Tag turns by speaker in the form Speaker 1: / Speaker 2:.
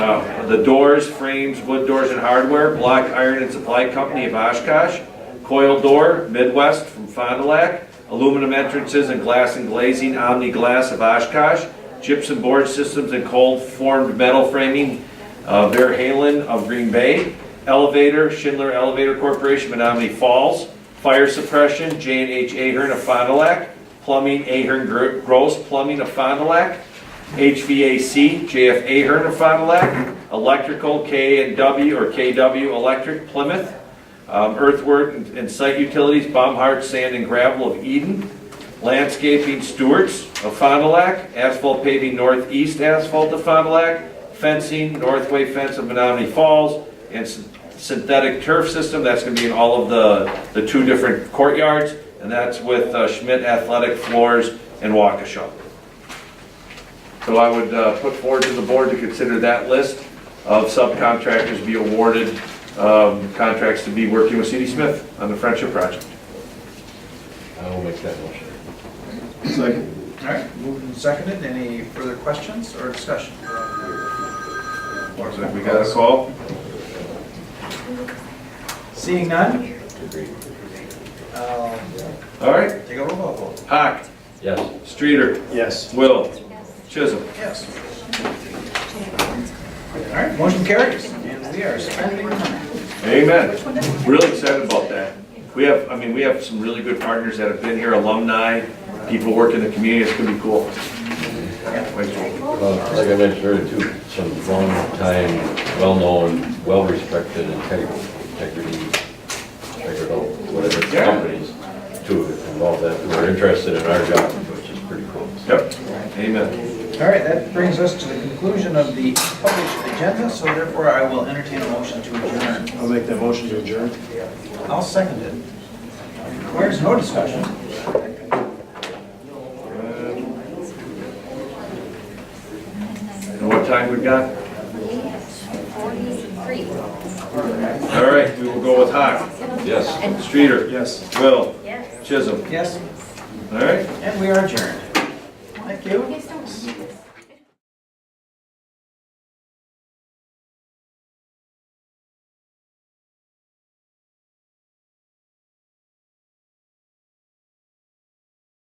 Speaker 1: Uh, The doors, frames, wood doors and hardware, Block Iron and Supply Company of Oshkosh, Coil Door, Midwest from Fond du Lac, Aluminum Entrances and Glass and Glazing, Omni Glass of Oshkosh, Gypsum Board Systems and Cold Formed Metal Framing, uh, Bear Halen of Green Bay, Elevator, Schindler Elevator Corporation, Menominee Falls, Fire Suppression, J and H Ahern of Fond du Lac, Plumbing Ahern Gro- Gross Plumbing of Fond du Lac, HVAC, JF Ahern of Fond du Lac, Electrical, K and W or KW Electric Plymouth, um, Earthwork and and Site Utilities, Baumhart Sand and Gravel of Eden, Landscaping Stewart's of Fond du Lac, Asphalt Paving Northeast Asphalt of Fond du Lac, Fencing, Northway Fence of Menominee Falls, and syn- Synthetic Turf System, that's gonna be in all of the, the two different courtyards, and that's with uh, Schmidt Athletic Floors and Waukesha. So I would uh, put forward to the board to consider that list of subcontractors to be awarded um, contracts to be working with CD Smith on the Friendship Project.
Speaker 2: I will make that motion.
Speaker 3: Second.
Speaker 4: All right, moved and seconded. Any further questions or discussion?
Speaker 1: Looks like we got a call.
Speaker 4: Seeing none,
Speaker 2: Agreed.
Speaker 4: I'll
Speaker 1: All right,
Speaker 4: take a roll call vote.
Speaker 1: Hock,
Speaker 2: Yes.
Speaker 1: Streeter,
Speaker 3: Yes.
Speaker 1: Will, Chisholm.
Speaker 4: Yes. All right, motion carries, and we are spending money.
Speaker 1: Amen. Really excited about that. We have, I mean, we have some really good partners that have been here, alumni, people work in the community, it's gonna be cool. Wait, cool.
Speaker 2: Well, like I mentioned earlier too, some long-time, well-known, well-respected integrity, integrity, integral, whatever
Speaker 1: Yeah.
Speaker 2: companies to involve that, who are interested in our job, which is pretty cool.
Speaker 1: Yep, amen.
Speaker 4: All right, that brings us to the conclusion of the published agenda, so therefore I will entertain a motion to adjourn.
Speaker 3: I'll make that motion to adjourn.
Speaker 4: I'll second it. Where's no discussion?
Speaker 1: And what time we got?
Speaker 5: Forty-three.
Speaker 1: All right, we will go with Hock,
Speaker 2: Yes.
Speaker 1: Streeter,
Speaker 3: Yes.
Speaker 1: Will,
Speaker 5: Yes.
Speaker 1: Chisholm.
Speaker 4: Yes,
Speaker 1: All right?
Speaker 4: and we are adjourned. Thank you.